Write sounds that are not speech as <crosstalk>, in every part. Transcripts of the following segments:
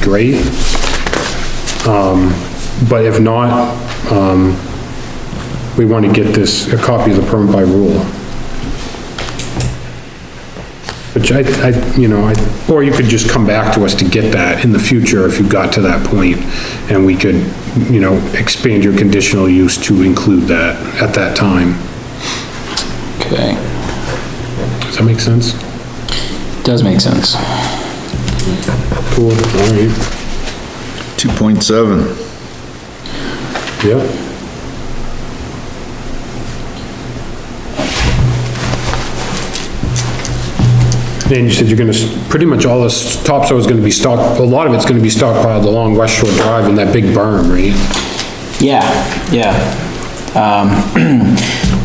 straight. Um, But if not, um, we want to get this, a copy of the permit by rule. Which I, I, you know, I, or you could just come back to us to get that in the future if you got to that point, and we could, you know, expand your conditional use to include that at that time. Okay, Does that make sense? does make sense. Cool, all right, 2.7, yeah. And you said you're gonna, s- pretty much all this topsoil is gonna be stock, a lot of it's gonna be stockpiled along West Shore Drive in that big berm, right? Yeah, yeah. Um,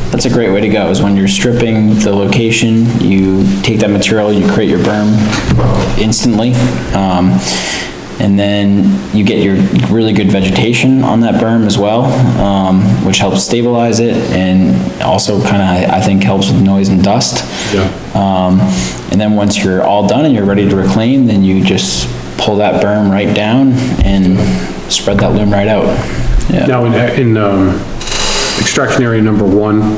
<clears throat> that's a great way to go, is when you're stripping the location, you take that material, you create your berm instantly. Um, and then you get your really good vegetation on that berm as well, um, which helps stabilize it and also kinda, I think, helps with noise and dust. Yeah. Um, and then once you're all done and you're ready to reclaim, then you just pull that berm right down and spread that loom right out. Yeah, Now, in, in, um, extraction area number one,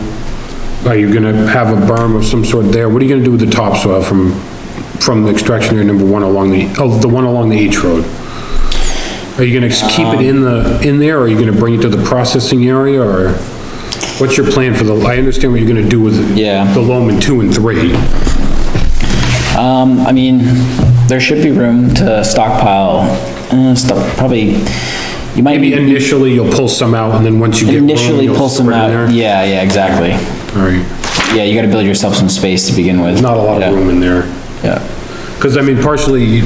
are you gonna have a berm of some sort there? What are you gonna do with the topsoil from, from the extraction area number one along the, oh, the one along the H road? Are you gonna keep Um. it in the, in there, or are you gonna bring it to the processing area, or what's your plan for the, I understand what you're gonna do with Yeah. the loam in two and three. um, I mean, there should be room to stockpile, uh, stuff, probably, you might Maybe be initially you'll pull some out, and then once you get room, initially you'll pull some store it in out. there. Yeah, yeah, exactly. All right, Yeah, you gotta build yourself some space to begin with. not a lot Yeah, of room in there. Yeah, Because I mean, partially,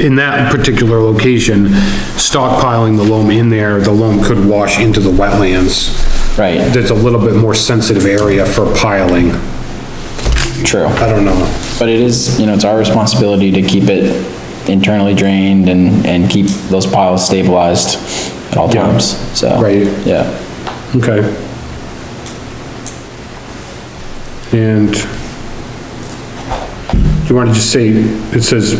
in that particular location, stockpiling the loam in there, the loam could wash into the wetlands. right, That's a little bit more sensitive area for piling. true. I don't know. But it is, you know, it's our responsibility to keep it internally drained and, and keep those piles stabilized at all Yeah. times, so. Right. Yeah, Okay. And do you want to just say, it says,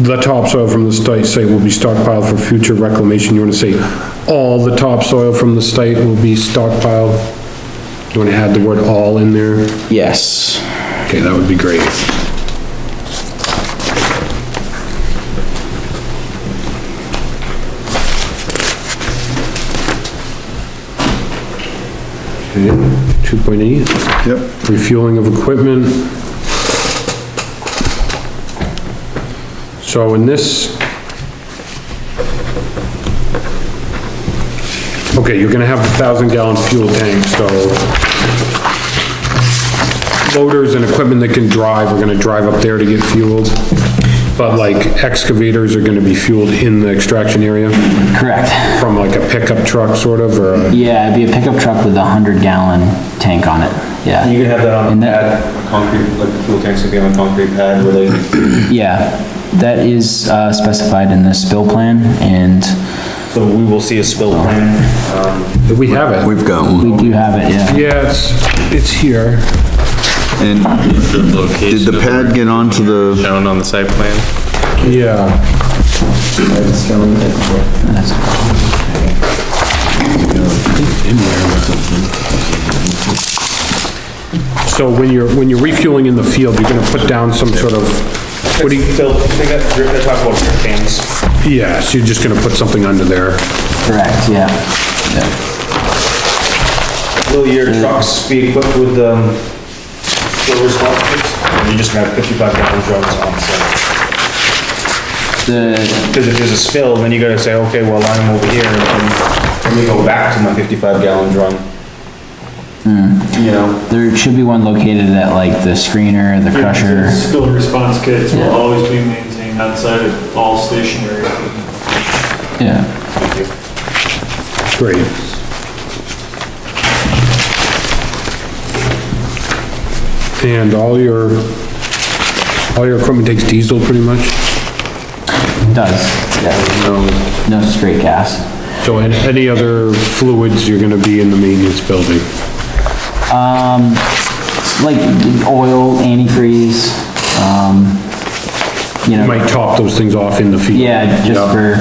the topsoil from the site site will be stockpiled for future reclamation. You want to say, all the topsoil from the site will be stockpiled? You want to add the word all in there? yes, Okay, that would be great. Okay, two point eight, yep, refueling of equipment. So in this. Okay, you're gonna have a thousand gallon fuel tank, so loaders and equipment that can drive are gonna drive up there to get fueled. But like excavators are gonna be fueled in the extraction area correct. from like a pickup truck sort of, or a- Yeah, it'd be a pickup truck with a hundred gallon tank on it, You yeah, could have that on And a that- pad, concrete, like the fuel tanks would be on a concrete pad where they, yeah. That is, uh, specified in the spill plan and so we will see a spill plan. Um, we have it. we've got one. we do have it, yeah. Yeah, it's, it's here. And did the pad get onto the, Shown on the site plan. Yeah. So when you're, when you're refueling in the field, you're gonna put down some sort of, what do you, Phil, they got, they talk about drip cans. yeah, so you're just gonna put something under there. Correct, yeah. Will your trucks be equipped with, um, filters, hot kits? Or You're just gonna have fifty-five gallon drums on site? The, Because if there's a spill, then you gotta say, okay, well, I'm over here, and then, let me go back to my fifty-five gallon drum. You know? there should be one located at like the screener, the crusher. Spill response kits will always be maintained outside of all stationary. Yeah, Great. And all your, all your equipment takes diesel pretty much? does, yeah, No. no straight gas. So and any other fluids, you're gonna be in the maintenance building? like oil, antifreeze, um, you know, might top those things off in the field. yeah, just for.